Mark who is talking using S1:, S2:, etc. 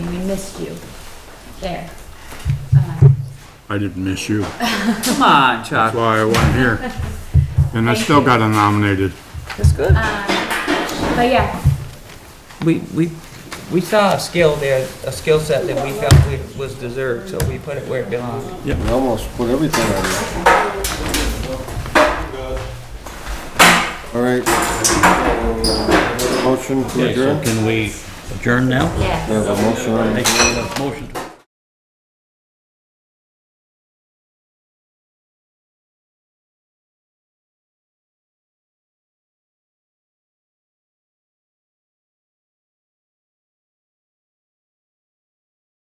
S1: missed you. There. Uh,
S2: I didn't miss you.
S3: Come on,
S2: That's
S3: Chuck.
S2: why I wasn't here. And I still got nominated.
S3: That's good.
S1: But yeah,
S3: We, we, we saw a skill there, a skill set that we felt we- was deserved, so we put it where it belonged.
S4: We almost put everything on there. All right. Motion to
S5: Okay, so
S4: adjourn.
S5: can we adjourn now?
S1: yeah.
S4: There's a motion on the
S5: Make a motion to